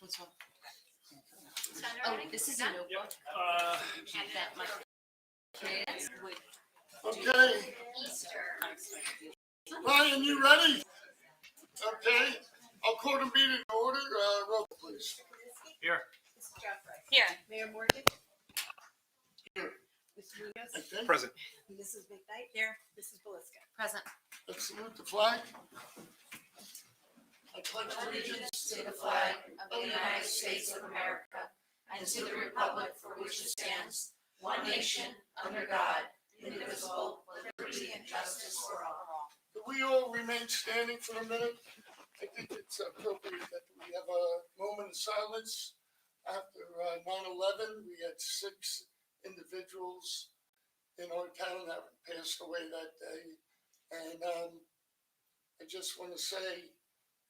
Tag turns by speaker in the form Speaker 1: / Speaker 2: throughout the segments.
Speaker 1: What's wrong?
Speaker 2: Is that
Speaker 1: Oh,
Speaker 2: already?
Speaker 1: this is a
Speaker 2: Done?
Speaker 1: notebook
Speaker 3: Uh,
Speaker 1: that my kids would
Speaker 4: Okay,
Speaker 2: Easter.
Speaker 1: unexpectedly.
Speaker 4: Ryan, you ready? Okay, I'll call the meeting to order, uh, roll call, please.
Speaker 3: here,
Speaker 5: Mrs. Jeffrey.
Speaker 2: Here.
Speaker 5: Mayor Morgan.
Speaker 4: Here.
Speaker 5: Mr. Munoz.
Speaker 4: Okay,
Speaker 3: present.
Speaker 5: Mrs. McKnight. Here. Mrs. Belisca.
Speaker 1: Present.
Speaker 4: let's salute the flag. I pledge allegiance to the flag
Speaker 6: Oh,
Speaker 1: of the United States
Speaker 6: of America and to the republic for which it stands, one nation, under Oh, God, indivisible, with liberty and justice for all.
Speaker 4: Do we all remain standing for a minute? I think it's appropriate that we have a moment of silence. After uh, 9/11, we had six individuals in our town that passed away that day. And um, I just want to say,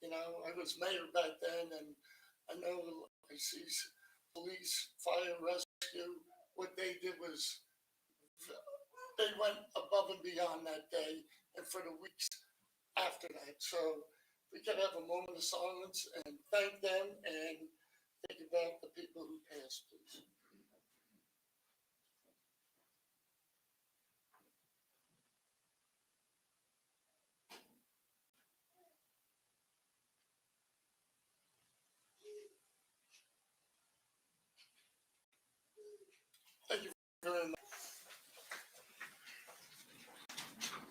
Speaker 4: you know, I was mayor back then and I know I see s- police, fire, rescue, what they did was they went above and beyond that day and for the weeks after that. So we can have a moment of silence and thank them and think about the people who passed, please. Thank you very much.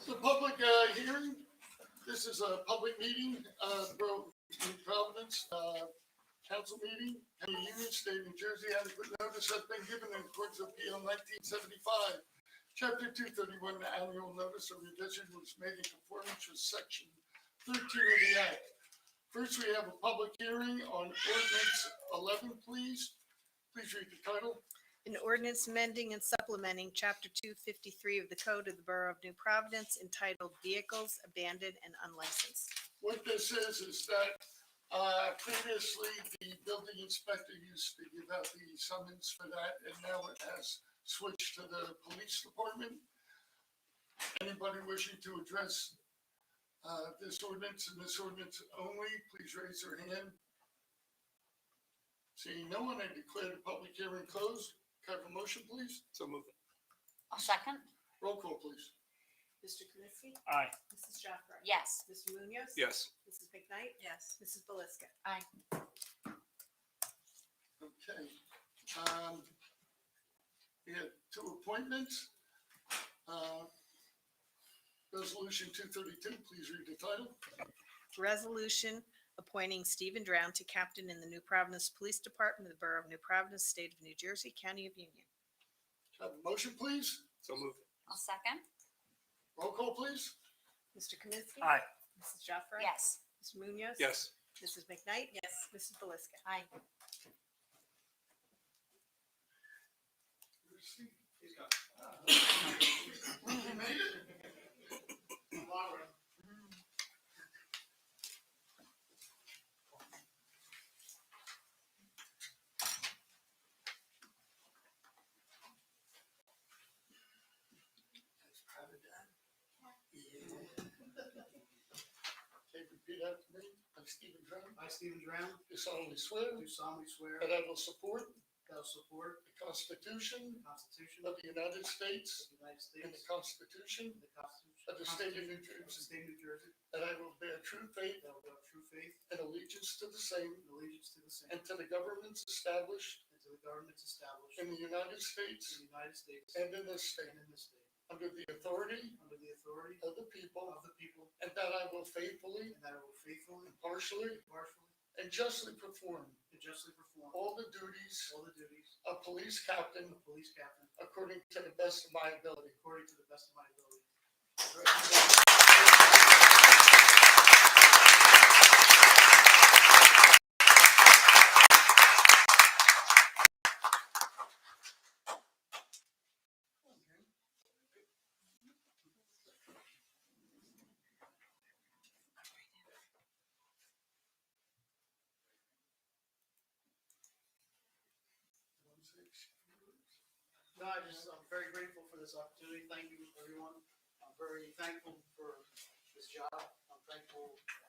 Speaker 4: The public uh, hearing, this is a public meeting, uh, Bro- in Providence, uh, council meeting, county union, state of New Jersey, adequate notice has been given in accordance with PL nineteen seventy-five. Chapter two thirty-one, the annual notice of revision was made in conformance with section thirteen of the act. First, we have a public hearing on ordinance eleven, please. Please read the title.
Speaker 5: An ordinance amending and supplementing Chapter 253 of the Code of the Borough of New Providence entitled Vehicles Abandoned and Unlicensed.
Speaker 4: What this is, is that uh, previously the building inspector used to give out the summons for that, and now it has switched to the police department. Anybody wishing to address uh, this ordinance and this ordinance only, please raise your hand. Seeing no one, I declare the public hearing closed. Can I have a motion, please?
Speaker 3: So moved.
Speaker 2: A second?
Speaker 4: Roll call, please.
Speaker 5: Mr. Kaminsky.
Speaker 3: Aye.
Speaker 5: Mrs. Jeffrey.
Speaker 2: Yes.
Speaker 5: Mr. Munoz.
Speaker 3: Yes.
Speaker 5: Mrs. McKnight.
Speaker 1: Yes.
Speaker 5: Mrs. Belisca.
Speaker 4: Okay. Um, we have two appointments. Uh, Resolution two thirty-two, please read the title.
Speaker 5: Resolution appointing Stephen Drown to captain in the New Providence Police Department of the Borough of New Providence, State of New Jersey, County of Union.
Speaker 4: Have a motion, please.
Speaker 3: So moved.
Speaker 2: A second?
Speaker 4: Roll call, please.
Speaker 5: Mr. Kaminsky.
Speaker 3: Aye.
Speaker 5: Mrs. Jeffrey.
Speaker 2: Yes.
Speaker 5: Mr. Munoz.
Speaker 3: Yes.
Speaker 5: Mrs. McKnight. Yes. Mrs. Belisca.
Speaker 4: You made it? Okay, repeat after me. I'm Stephen Drummond.
Speaker 7: I, Stephen Dram,
Speaker 4: Do solemnly swear
Speaker 7: do solemnly swear
Speaker 4: that
Speaker 7: that
Speaker 4: I will support
Speaker 7: I will support
Speaker 4: the Constitution
Speaker 7: the Constitution
Speaker 4: of
Speaker 7: of
Speaker 4: the United
Speaker 7: the
Speaker 4: States
Speaker 7: United
Speaker 4: and the
Speaker 7: States
Speaker 4: Constitution
Speaker 7: and the Constitution
Speaker 4: of the State of New
Speaker 7: of the
Speaker 4: Jersey,
Speaker 7: State of New Jersey,
Speaker 4: that I will bear true faith
Speaker 7: that I will have true faith
Speaker 4: and allegiance to the same
Speaker 7: and allegiance to the same
Speaker 4: and to the governments established
Speaker 7: and to the governments established
Speaker 4: in
Speaker 7: in
Speaker 4: the United
Speaker 7: the
Speaker 4: States
Speaker 7: United States
Speaker 4: and in this
Speaker 7: and
Speaker 4: state,
Speaker 7: in this state,
Speaker 4: under the authority
Speaker 7: under the authority
Speaker 4: of the people,
Speaker 7: of the people,
Speaker 4: and that I will faithfully,
Speaker 7: and that I will faithfully,
Speaker 4: impartially,
Speaker 7: impartially,
Speaker 4: and justly perform
Speaker 7: and justly perform
Speaker 4: all
Speaker 7: all
Speaker 4: the duties
Speaker 7: the duties
Speaker 4: of police
Speaker 7: of
Speaker 4: captain
Speaker 7: a police captain
Speaker 4: according to the best of my ability.
Speaker 7: according to the best of my ability. No, I just, I'm very grateful for this opportunity. Thank you, everyone. I'm very thankful for this job. I'm thankful